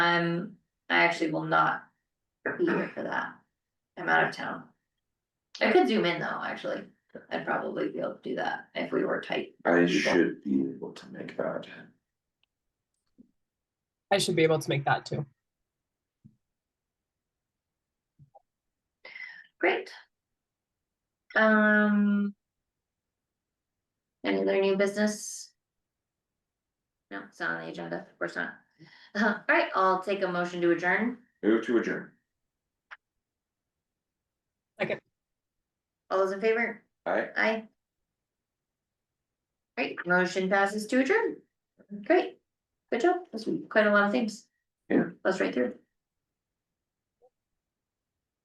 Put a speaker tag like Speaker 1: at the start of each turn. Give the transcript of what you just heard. Speaker 1: I'm, Um, I actually will not be here for that. I'm out of town. I could zoom in though, actually. I'd probably be able to do that if we were tight.
Speaker 2: I should be able to make that.
Speaker 3: I should be able to make that too.
Speaker 1: Great. Um. Any other new business? No, it's not on the agenda, of course not. Uh, alright, I'll take a motion to adjourn.
Speaker 2: Move to adjourn.
Speaker 1: All those in favor?
Speaker 2: Aye.
Speaker 1: Aye. Great, motion passes to adjourn. Great. Good job. That's quite a lot of things.
Speaker 2: Yeah.
Speaker 1: That's right through.